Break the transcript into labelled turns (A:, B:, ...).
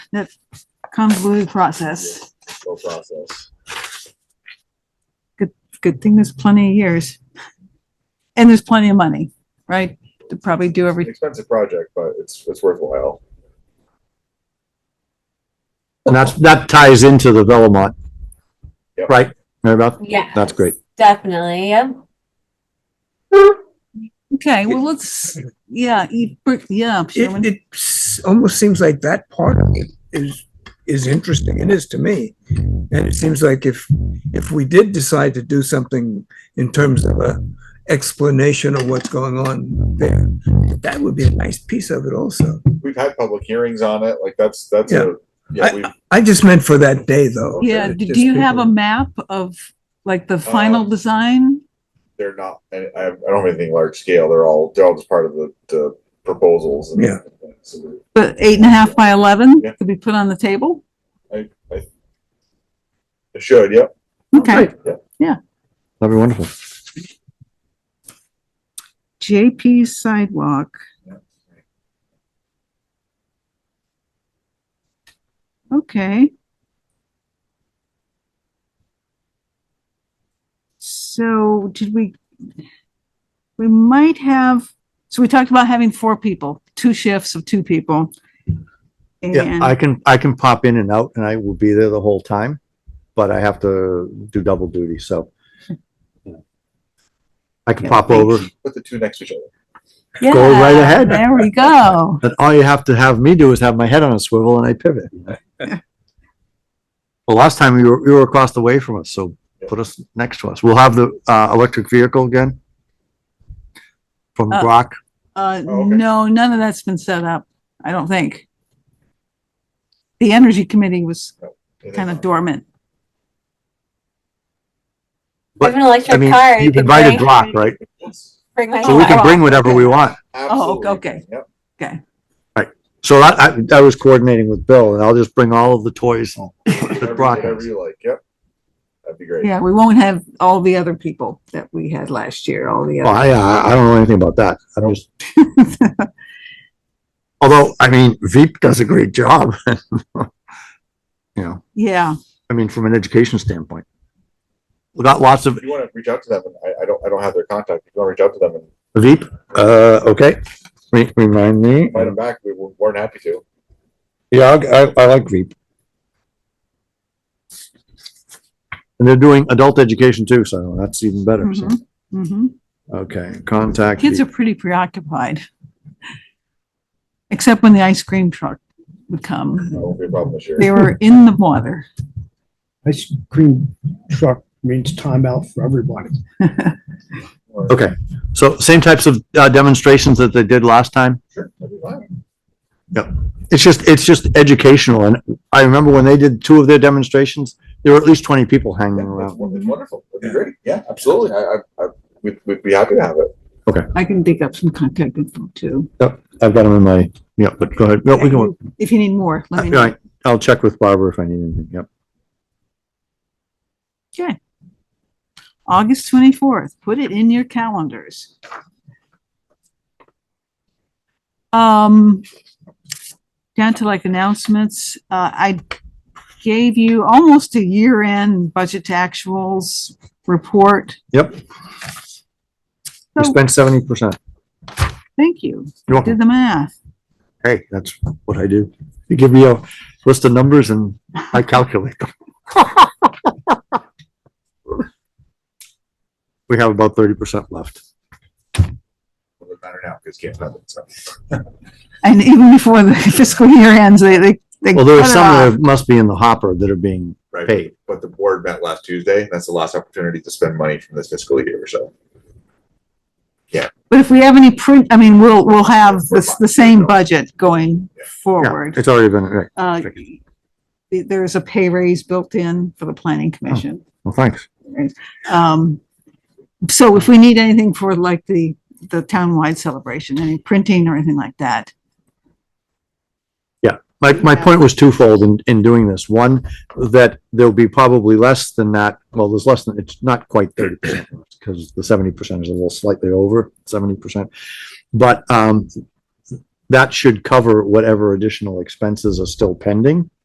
A: that convoluted process.
B: slow process.
A: Good thing there's plenty of years. And there's plenty of money, right? To probably do
B: It's an
A: every,
B: expensive project, but it's, it's worthwhile.
C: And that's, that ties into the Velomont.
B: Yep.
C: Right, Mary Beth?
D: Yeah.
C: That's great.
D: Definitely. Yep.
A: okay, well, let's, yeah, you br- yeah, Sherman.
E: It, it s- almost seems like that part of it is, is interesting. It is to me. And it seems like if, if we did decide to do something in terms of a explanation of what's going on there, that would be a nice piece of it also.
B: We've had public hearings on it, like that's, that's
E: Yeah.
B: a, yeah, we,
E: I just meant for that day though.
A: Yeah,
E: It
A: do
E: just Uh,
A: do you have a
E: people-
A: map of like the final
B: Um,
A: design?
B: they're not, I, I I don't have anything large scale, they're all, they're all just part of the, the proposals. and-
E: Yeah.
B: So
A: The eight and a half by 11
B: Yeah.
A: could be put on the table?
B: It should, yep.
E: Oh,
A: Okay,
C: That'd be wonderful.
A: JP sidewalk. Okay. So did we, we might have, so we talked about having four people, two shifts of two people.
C: Yeah,
A: And,
C: I can, I can pop in and out and I will be there the whole time, but I have to do double duty, so. you know. I can
A: Yeah.
C: pop over,
B: Put the two next to each other.
A: yeah,
C: go right ahead.
A: There we go.
C: and all you have to have me do is have my head on a swivel and I pivot. you know? Well, last time you were, you were across the way from us, so put us next to us. We'll have the, uh, electric vehicle again. From
A: Uh,
C: Brock.
A: Uh,
B: Oh, okay.
A: no, none of that's been set up, I don't think. The energy committee was
B: And
A: kind
B: then-
A: of dormant.
D: I have an electric
C: I mean,
D: car. I
C: you've
D: can
C: invited
D: bring-
C: Brock, right?
B: Yes,
D: Bring my
C: So we can
D: car.
C: bring whatever we want.
B: Absolutely.
A: okay.
B: Yep.
C: So I, I, I was coordinating with Bill and I'll just bring all of the toys that
B: Whatever-
C: Brock
B: Whatever
C: has.
B: you like, yep. That'd be great.
A: Yeah, we won't have all the other people that we had last year, all the
C: Oh,
A: other.
C: I, I I don't know anything about that. I'm just. Although, I mean, Veep does a great job. You know,
A: Yeah,
C: I mean, from an education standpoint. We got lots of
B: If you want to reach out to them, and I, I don't, I don't have their contact, if you want to reach out to them and
C: Veep, uh, okay, Re- remind me.
B: invite them back, we were more than happy to.
C: Yeah, I, I- I like Veep. And they're doing adult education too, so that's even better, so,
A: Mhm. mhm.
C: okay, contact.
A: Kids are
C: Veep.
A: pretty preoccupied. Except when the ice cream truck would
B: That
A: come.
B: won't be a problem this year.
A: They were in the water.
F: Ice cream truck means timeout for everybody.
B: Or-
C: Okay, so same types of uh, demonstrations that they did last time?
B: Sure, that'd be fine.
C: It's just, it's just educational, and I remember when they did two of their demonstrations, there were at least twenty people hanging
B: Yeah,
C: around.
B: that's won- it's wonderful. That'd be great. Yeah, absolutely. I, I, I we'd, we'd be happy to have it.
A: I can dig up some contact info too.
C: I've got them in my, yeah, but go ahead, no, we can,
A: If you need more, let me
C: all
A: know.
C: right, I'll check with Barbara if I need anything, yep.
A: August twenty-fourth, put it in your calendars. Um, down to like announcements, uh, I gave you almost a year-end budget to actuals report.
C: Yep. We
A: So,
C: spent seventy percent.
A: thank you,
C: You're welcome.
A: did the math.
C: Hey, that's what I do. You give me a list of numbers and I calculate them. We have about thirty percent left.
B: Doesn't matter now because can't have it. So.
A: And even before the fiscal year ends, they, they, they
C: Well, there are
A: cut it
C: some
A: off.
C: that must be in the hopper that are being
B: Right.
C: paid.
B: But the board met last Tuesday. That's the last opportunity to spend money from this fiscal year. So
A: But if we have any print, I mean, we'll, we'll have
B: We're
A: the, the same budget going
B: Yeah.
C: Yeah,
A: forward.
C: it's already been, right.
A: Uh, th- there is a pay raise built in for the planning commission.
C: Well, thanks.
A: Um, so if we need anything for like the, the townwide celebration, any printing or anything like that,
C: My, my
A: Yeah.
C: point was twofold in, in doing this. One, that there'll be probably less than that. Well, there's less than, it's not quite thirty percent because the seventy percent is a little slightly over seventy percent. But, um, that should cover whatever additional expenses are still pending.